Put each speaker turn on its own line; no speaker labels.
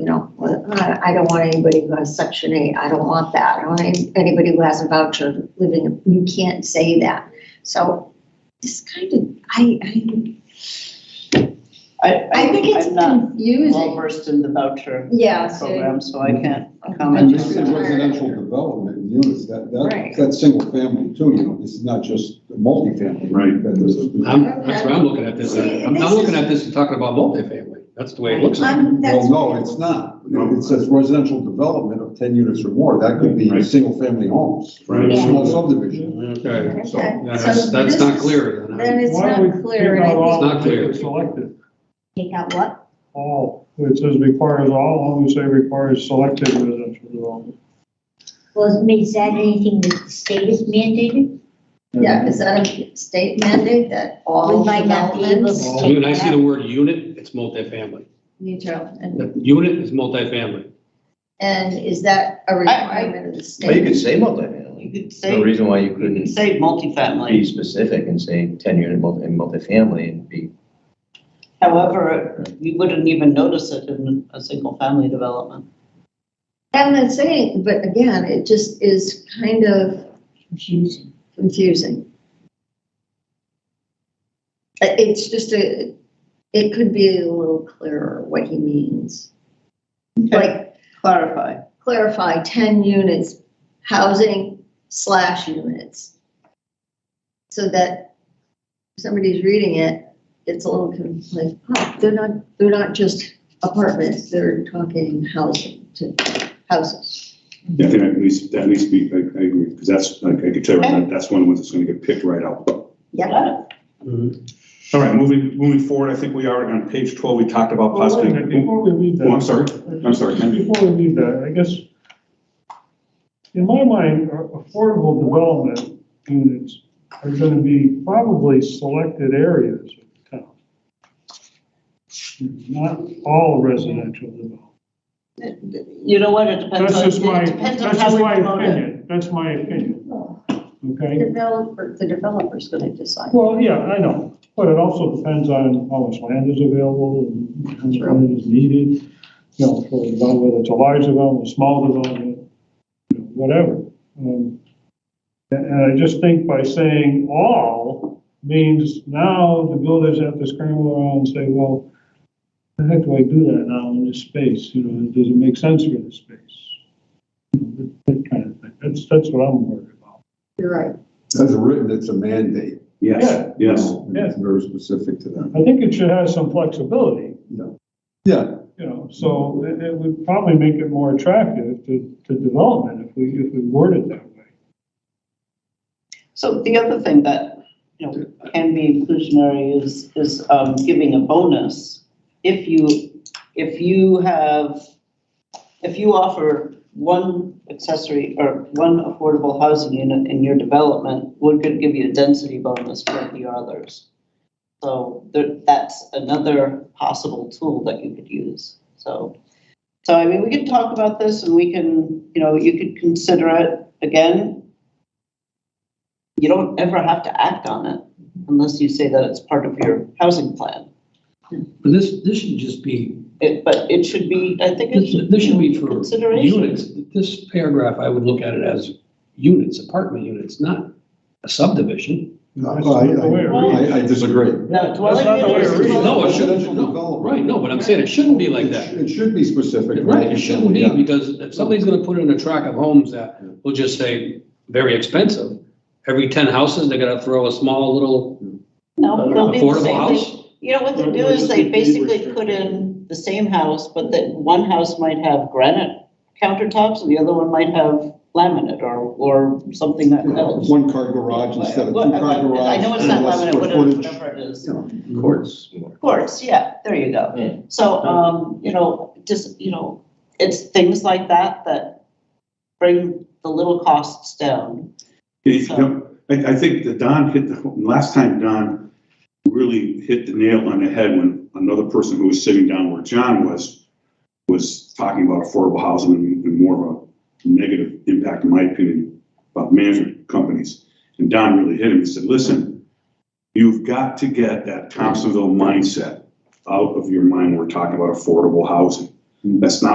uh, I don't want anybody who has section eight, I don't want that, I don't want any- anybody who has a voucher living, you can't say that. So this kind of, I, I,
I,
I think it's
I'm not well
confusing.
versed in the voucher
Yeah, so,
program, so um, I can't
And
comment
this is
on that.
residential development units, that,
Right.
that, that's single family too, you know, this is not just multifamily.
Right.
That this is-
I'm, that's what I'm looking at this,
See,
I'm,
this
I'm looking
is-
at this and talking about multifamily, that's the way it looks like.
I'm, Um, that's.
Well, no, it's not. It says residential development of ten units or more. That could be
Right.
single family homes,
Right.
small subdivision.
Okay,
Okay,
so
that's,
so
that's
this
not
is-
clear then.
Then it's
Why don't we
not clear,
take
and
out
I
all
It's not
that
clear.
are Selected,
think, take out what?
all, it says requires all, I'm gonna say requires selected residential development.
Well, is that anything that the state is mandated?
Yeah, is that a state mandate that all
We might not be able
developments?
to
When I
take
see
that.
the word unit, it's multifamily,
Me too. And,
The unit is multifamily.
and is that a requirement of the
Well, you
state?
could say multifamily.
You could
No
say,
reason why you
you could
couldn't
say
be
multifamily,
specific and say ten unit multi, and multifamily and be,
however, you wouldn't even notice it in a single family development.
I'm not saying, but again, it just is kind of
Confusing.
confusing. It- It's just a, it could be a little clearer what he means. Like
Clarify.
clarify ten units, housing slash units. So that if somebody's reading it, it's a little con- like, oh, they're not, they're not just apartments, they're talking housing to houses.
Yeah, I think at least, that needs to be, I, I agree, because that's, like, I could tell you right now, that's one of the ones that's gonna get picked right out.
Yeah,
Got it.
Mm-hmm.
All right, moving, moving forward, I think we are on page twelve, we talked about
Well, wait a
possibly.
minute, Before we leave that.
Oh, I'm sorry, I'm sorry, Ken.
Before we leave that, I guess, in my mind, a- affordable development units are gonna be probably selected areas of town. Not all residential development.
You know what, it depends
That's
on,
just my,
it depends on
that's
how
just
we
my
promote it.
opinion, that's my opinion, okay?
developer, the developer's gonna decide.
Well, yeah, I know, but it also depends on how much land is available and how much land is needed. You know, for about whether it's a large development, a small development, you know, whatever. Um, And, and I just think by saying all means now the builders have to scramble around and say, well, how the heck do I do that now in this space? You know, does it make sense for this space? You know, That that kind of thing. That's, that's what I'm worried about.
You're right.
As written, it's a mandate.
Yes,
Yeah.
yes.
And It's very specific to them.
I think it should have some flexibility.
Yeah, Uh,
you know, so it, it would probably make it more attractive to, to development if we, if we word it that way.
So the other thing that, you know, can be inclusionary is, is um, giving a bonus. If you, if you have, if you offer one accessory or one affordable housing unit in your development, we're gonna give you a density bonus for the others. So there, that's another possible tool that you could use, so. So I mean, we can talk about this and we can, you know, you could consider it again, you don't ever have to act on it unless you say that it's part of your housing plan.
But this, this should just be,
It, but it should be, I think it should.
this should be for
Consideration.
units. This paragraph, I would look at it as units, apartment units, not a subdivision.
No, I,
That's the way it
I-
reads.
I, I disagree.
No,
That's not the way it
dwelling
reads.
unit
No, it
is.
shouldn't, no, right, no, but I'm saying it shouldn't be like
It
that.
sh- It should be specific.
Right, it shouldn't be,
Yeah.
because if somebody's gonna put in a track of homes that will just say, very expensive, every ten houses, they're gonna throw a small little
No, they'll do the
affordable
same thing.
house.
You know, what they do
Or- or
is
just
they
be
basically
restricted.
put in the same house, but that one house might have granite countertops and the other one might have laminate or, or something that else.
One car garage instead of two car garage.
I know it's not
and less
laminate,
square
whatever,
footage.
whatever it is.
You know,
courts.
Of course, yeah, there you go.
Yeah.
So, um, you know, just, you know, it's things like that that bring the little costs down.
Yeah, you know, I, I think that Don hit the, last time Don really hit the nail on the head when another person who was sitting down where John was, was talking about affordable housing and and more of a negative impact, in my opinion, about management companies. And Don really hit him and said, listen, you've got to get that Thompsonville mindset out of your mind. when We're talking about affordable housing. That's not